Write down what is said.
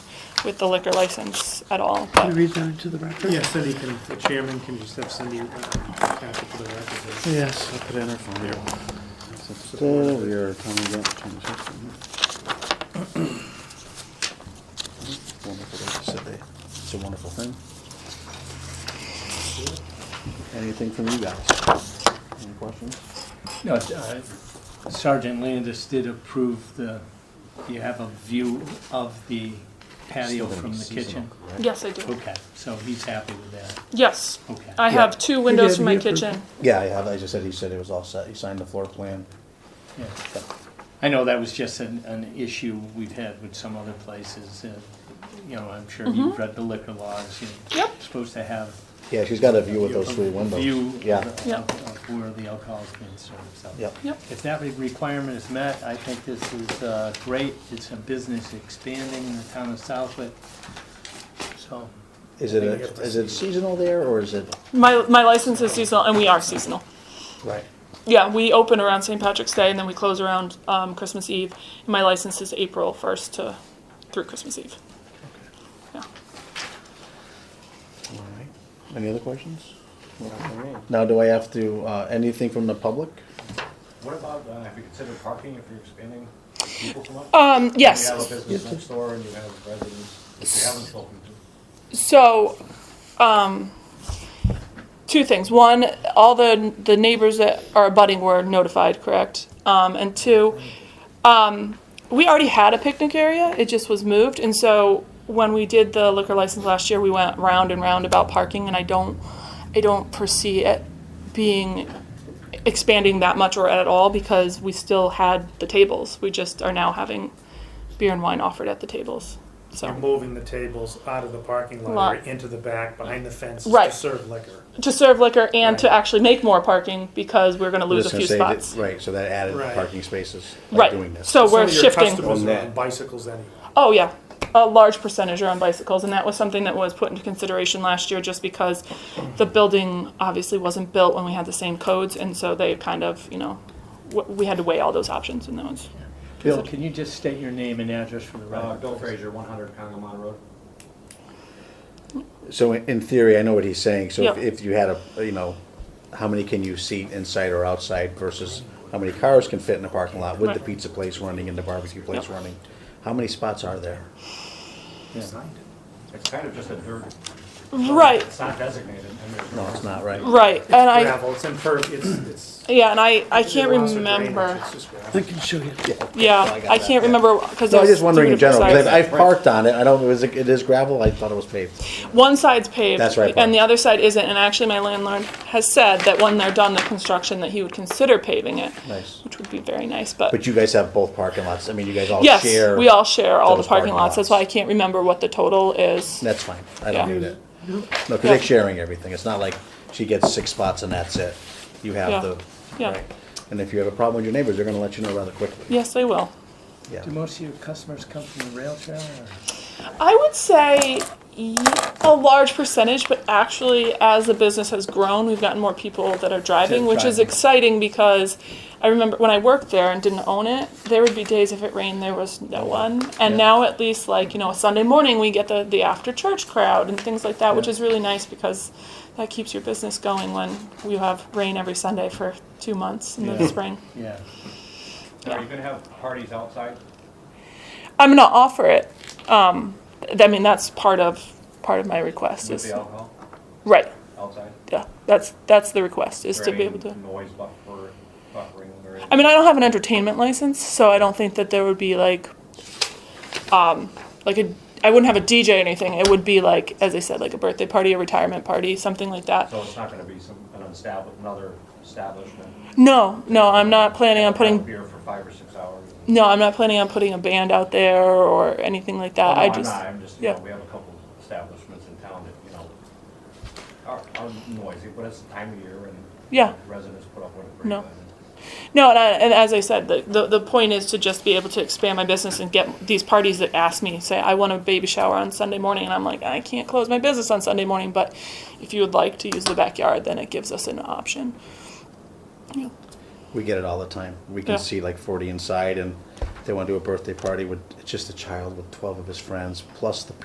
with the liquor license at all, but read that into the record? Yeah, Cindy can, the chairman can just have Cindy uh, pass it to the record. Yes. Put in her file. We are coming up to the system. Wonderful day to sit there. It's a wonderful thing. Anything from you guys? Any questions? No, uh, Sergeant Landis did approve the, you have a view of the patio Still gonna from be the kitchen? seasonal, correct? yes, I do. Okay, so he's happy with that, Yes, Oh. okay. I have two windows for my Yeah, he approved kitchen. Yeah, I have, I just said, he said it was all set, he signed the floor plan. yeah. I know that was just an, an issue we've had with some other places, uh, you know, I'm sure you've read the liquor laws, you're Yep. supposed to have. Yeah, she's got a view of those a three windows. View of- Yeah, of Yep. of where the alcohol's being served, so. yep. Yep, If that requirement is met, I think this is uh, great. It's a business expanding in the town of Southwick. So, Is it, a- is it seasonal there, or is it? my, my license is seasonal and we are seasonal. Right. Yeah, we open around St. Patrick's Day and then we close around um, Christmas Eve. And my license is April 1st to through Christmas Eve. Yeah. All right. Any other questions? Now, do I have to, uh, anything from the public? What about, uh, have you considered parking if you're expanding? People come up? Um, yes. You have a business next door and you have residents that you haven't spoken to. So, um, two things. One, all the, the neighbors that are abutting were notified, correct? Um, and two, um, we already had a picnic area, it just was moved. And so when we did the liquor license last year, we went round and round about parking and I don't, I don't foresee it being, expanding that much or at all because we still had the tables. We just are now having beer and wine offered at the tables, so. You're moving the tables out of the parking lot or Lot. into the back, behind the fence to Right. serve liquor. to serve liquor and to actually make more parking because we're going to lose a Just gonna few say that- spots. Right, so that added Right. parking spaces by Right. doing this. So we're Some of shifting. your customers From are on that. bicycles anyway. Oh yeah, a large percentage are on bicycles, and that was something that was put into consideration last year, just because the building obviously wasn't built when we had the same codes, and so they kind of, you know, w- we had to weigh all those options, and that was Bill, can you just state your name and address for the Uh, record? Bill Frazier, one hundred Congamon Road. So in in theory, I know what he's saying, so if, Yeah. if you had a, you know, how many can you seat inside or outside versus how many cars can fit in the parking lot with the Right. pizza place running and the barbecue place Yep. running? How many spots are there? It's kind of just a dirt, right, it's not designated. and there's No, it's not, right? right, and I Gravel, it's imperv, it's, it's. yeah, and I I can't it's lots of drainage, remember. it's just gravel. I can show you. I Yeah, got I that, can't yeah. remember because No, I was just wondering in general, because I've parked on it, I don't, it was, it is gravel, I thought it was paved. One side's paved. That's right, Barb. And the other side isn't, and actually my landlord has said that when they're done the construction, that he would consider paving it. Nice. Which would be very nice, but, But you guys have both parking lots, I mean, you guys all yes, share. we all share all the those parking parking lots, that's lots. why I can't remember what the total is. That's fine, I don't Yeah. need it. No, because they're Yeah. sharing everything, it's not like she gets six spots and that's it. You have Yeah. the, Yeah. right. And if you have a problem with your neighbors, they're gonna let you know rather quickly. Yes, they will. Yeah. Do most of your customers come from the rail trail or? I would say y- a large percentage, but actually, as the business has grown, we've gotten more people that are driving, which is Driving. exciting because I remember when I worked there and didn't own it, there would be days if it rained, there was no one. And Yeah. now, at least, like, you know, Sunday morning, we get the, the after church crowd and things like that, which is really nice because that keeps your business going when you have rain every Sunday for two months in the Yeah. spring. Yeah. Now, Are you gonna have parties outside? I'm going to offer it. Um, th- I mean, that's part of part of my request With is the alcohol right. outside? yeah, that's that's the request is to Is there be any able to. Noise buffer, buffering or? I mean, I don't have an entertainment license, so I don't think that there would be like, um, like a. I wouldn't have a DJ or anything. It would be like, as I said, like a birthday party, a retirement party, something like that. So it's not gonna be some, an established, another establishment? No, no, I'm not planning on Have putting. Beer for five or six hours? No, I'm not planning on putting a band out there or anything like Oh, that. no, I I'm just. not. I'm just, you know, yeah. we have a couple establishments in town that, you know, are, are noisy, but it's the time of year and. Yeah. Residents put up with it. pretty No. good. No, and, I, and as I said, the, the, the point is to just be able to expand my business and get these parties that ask me, say, I want a baby shower on Sunday morning, and I'm like, I can't close my business on Sunday morning, but if you would like to use the backyard, then it gives us an option. Yeah. We get it all the time. We can Yeah. see like 40 inside, and they want to do a birthday party with it's just a child with 12 of his friends, plus the